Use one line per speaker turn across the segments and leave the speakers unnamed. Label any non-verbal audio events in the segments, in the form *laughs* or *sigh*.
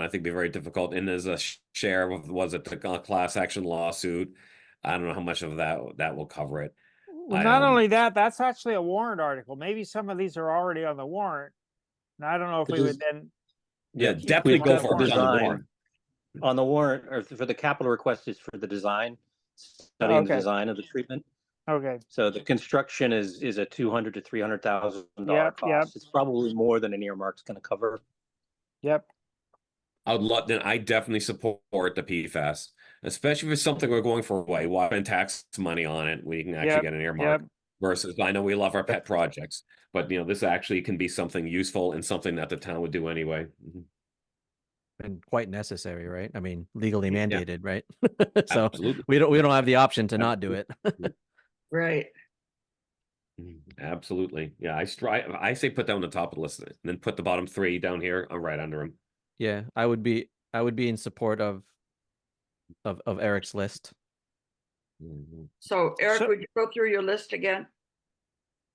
I think be very difficult. And there's a sh- share of was it the cl- class action lawsuit? I don't know how much of that that will cover it.
Well,
I,
not
um,
only that, that's actually a warrant article. Maybe some of these are already on the warrant. And I don't know if
It
we would
is-
then,
Yeah,
Yeah, keep
definitely
things
go
on
for it.
warrant.
on the warrant.
Design on the warrant, or for the capital request is for the design, studying the
Oh, Okay.
design of the treatment.
okay,
So the construction is, is a two hundred to three hundred thousand dollar
Yep, yep.
cost. It's probably more than an earmark's gonna cover.
yep,
I would love, then I definitely support the PFAS, especially if it's something we're going for away. Why spend tax money on it? We can actually
Yep,
get an
yep,
earmark versus I know we love our pet projects, but you know, this actually can be something useful and something that the town would do anyway. Mhm.
and quite necessary, right? I mean, legally
Yeah.
mandated, right? *laughs* so
Absolutely.
we don't we don't have the option to not do it. *laughs*
Right.
Mhm. Absolutely. Yeah, I strive, I say put down the top of the list and then put the bottom three down here, uh, right under them.
yeah, I would be I would be in support of of of Eric's list.
Mm-hmm.
So Eric,
So-
would you go through your list again?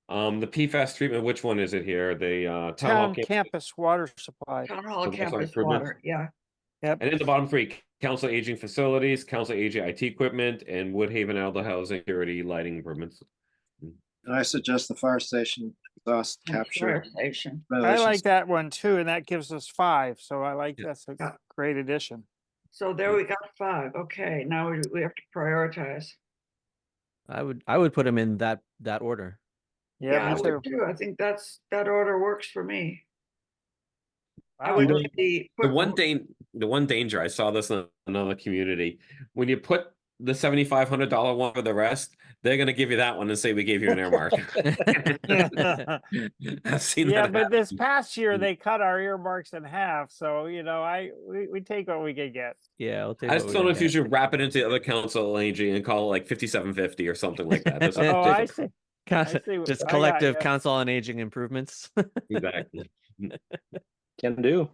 Um, the PFAS treatment, which one is it here? The uh town hall
town
camp-
campus water supply.
Town hall
Those are
campus
improvements.
water, yeah.
And then the bottom three, council aging facilities, council aging IT equipment, and Woodhaven Aldo housing security lighting improvements.
And I suggest the fire station exhaust
and
capture.
fire Station.
I
ventilation
like that one too, and that gives us five, so I like,
Yeah.
that's a
Yeah.
great addition.
So there we got five. Okay, now we, we have to prioritize.
I would I would put him in that that
*laughs*
order. *laughs*
Yeah,
I
me
would
too.
too. I think that's, that order works for me. I
Wow.
would *laughs* put the.
The
put
one
wo-
thing, the one danger, I saw this in another community, when you put the seventy-five hundred dollar one for the rest, they're gonna give you that one and say, we gave you an
*laughs*
earmark. *laughs* I've seen
Yeah,
that
but
happen.
this past year,
Mm.
they cut our earmarks in half, so you know, I, we, we take what we can get.
yeah, I'll take
I
what
just
we
don't
can
know if you
get.
should wrap it into the other council aging and call it like fifty-seven fifty or something like that.
*laughs*
That's-
Oh, I
that's-
see,
Con- *laughs*
see what-
just
I got
collective
ya.
council on aging improvements. *laughs*
Exactly.
Can do.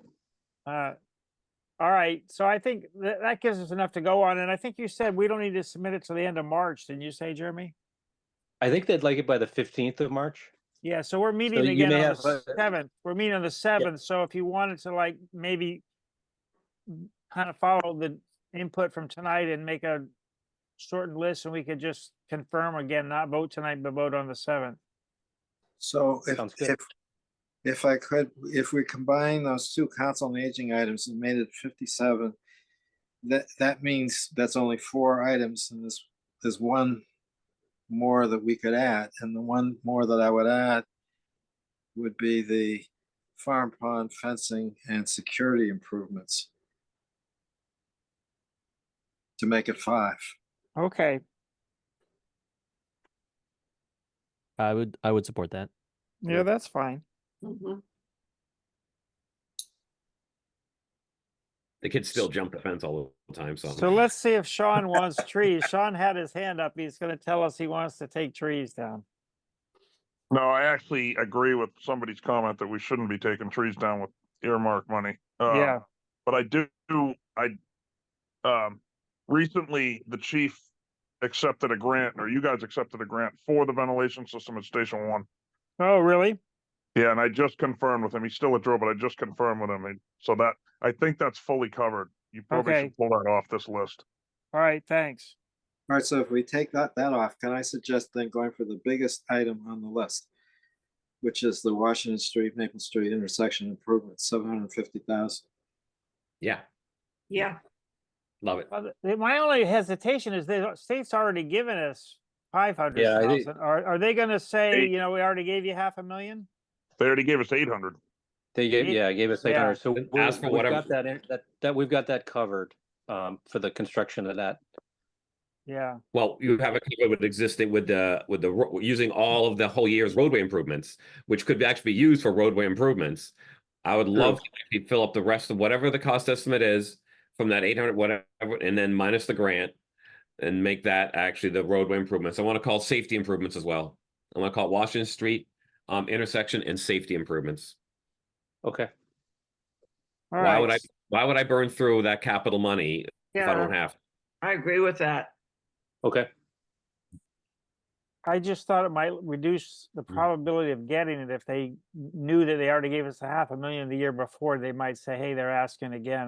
Uh, All right, so I think that, that gives us enough to go on, and I think you said we don't need to submit it till the end of March, didn't you say, Jeremy?
I think they'd like it by the fifteenth of March.
Yeah, so we're meeting
you
again
may
on
have,
the
uh,
seventh, we're meeting on the seventh, so if you wanted to like maybe kind of follow the input from tonight and make a shortened list, and we could just confirm again, not vote tonight, but vote on the seventh.
So if,
Sounds good.
if, if I could, if we combine those two council on aging items and made it fifty-seven, that, that means that's only four items and there's, there's one more that we could add. And the one more that I would add would be the farm pond fencing and security improvements to make it five.
Okay,
I would I would support that.
yeah, that's fine.
Mhm.
The kids still jump the fence all the time, so.
So let's see if Sean
*laughs*
wants trees. Sean had his hand up, he's gonna tell us he wants to take trees down.
No, I actually agree with somebody's comment that we shouldn't be taking trees down with earmark money. Uh,
Yeah.
But I do, I, um, recently the chief accepted a grant, or you guys accepted a grant for the ventilation system at Station One.
Oh, really?
Yeah, and I just confirmed with him. He's still a drill, but I just confirmed with him. and So that, I think that's fully covered. You probably
Okay.
should pull that off this list.
All right, thanks.
All right, so if we take that, that off, can I suggest then going for the biggest item on the list? Which is the Washington Street, Maple Street intersection improvement, seven hundred fifty thousand.
Yeah,
Yeah,
love it.
Well, th- th- My only hesitation is the state's already given us five hundred
I think-
thousand. Are, are they gonna say,
They-
you know, we already gave you half a million?
They already gave us eight hundred.
They gave,
Ye-
yeah, gave us
yeah.
eight hundred, so
Then
we'll-
ask for
we've
whatever-
got that, in- that, that, we've got that covered, um, for the construction of that.
Yeah,
Well, you have it covered with existing with the with the ro- using all of the whole year's roadway improvements, which could be actually be used for roadway improvements. I would love to actually fill up the rest of whatever the cost estimate is from that eight hundred whatever, and then minus the grant, and make that actually the roadway improvements. I want to call safety improvements as well. I want to call it Washington Street um, intersection and safety improvements.
Okay.
all
why would I?
right.
Why would I burn through that capital money if I don't
yeah,
have?
I agree with that.
Okay,
I just thought it might reduce the
Hmm.
probability of getting it if they knew that they already gave us a half a million the year before, they might say, hey, they're asking again.